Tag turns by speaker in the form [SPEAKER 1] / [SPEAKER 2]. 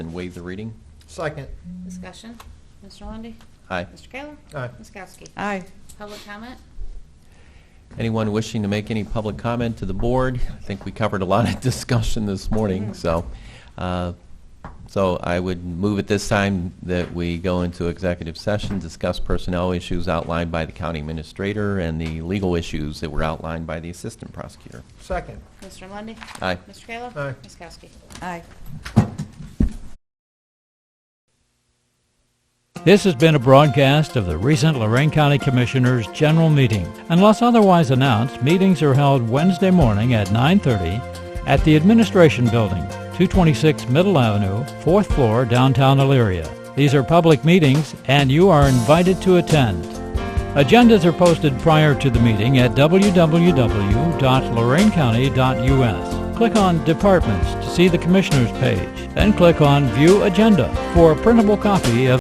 [SPEAKER 1] and waive the reading.
[SPEAKER 2] Second.
[SPEAKER 3] Discussion. Mr. Lundy.
[SPEAKER 1] Aye.
[SPEAKER 3] Mr. Kayla?
[SPEAKER 2] Aye.
[SPEAKER 3] Ms. Kowski?
[SPEAKER 4] Aye.
[SPEAKER 3] Public comment?
[SPEAKER 1] Anyone wishing to make any public comment to the board? I think we covered a lot of discussion this morning, so, uh, so I would move at this time that we go into executive session, discuss personnel issues outlined by the county administrator and the legal issues that were outlined by the assistant prosecutor.
[SPEAKER 2] Second.
[SPEAKER 3] Mr. Lundy.
[SPEAKER 1] Aye.
[SPEAKER 3] Mr. Kayla?
[SPEAKER 2] Aye.
[SPEAKER 3] Ms. Kowski?
[SPEAKER 4] Aye.
[SPEAKER 5] This has been a broadcast of the recent Lorraine County Commissioners' General Meeting. Unless otherwise announced, meetings are held Wednesday morning at 9:30 at the Administration Building, 226 Middle Avenue, 4th floor, downtown Elyria. These are public meetings, and you are invited to attend. Agendas are posted prior to the meeting at www.lorainecounty.us. Click on Departments to see the Commissioners page, then click on View Agenda for a printable copy of